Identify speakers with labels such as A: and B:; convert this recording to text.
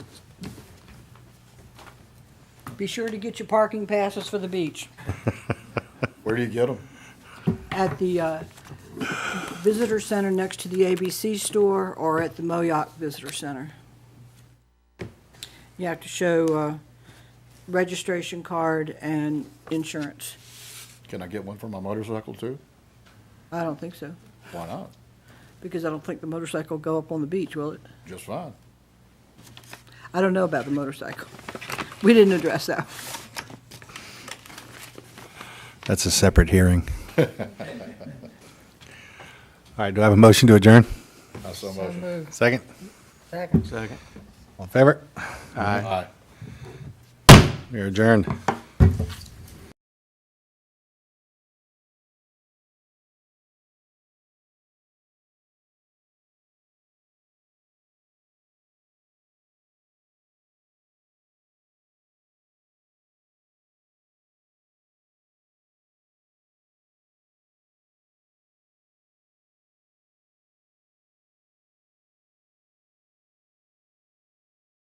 A: Be sure to get your parking passes for the beach
B: Where do you get them?
A: at the uh, visitor center next to the ABC store or at the Moyoc Visitor Center. You have to show uh, registration card and insurance.
B: Can I get one for my motorcycle too?
A: I don't think so,
B: Why not?
A: because I don't think the motorcycle will go up on the beach, will it?
B: Just fine.
A: I don't know about the motorcycle. We didn't address that.
C: That's a separate hearing. All right, do I have a motion to adjourn?
B: I so motion.
C: Second?
D: Second. Second.
C: All in favor?
B: Aye.
C: We are adjourned.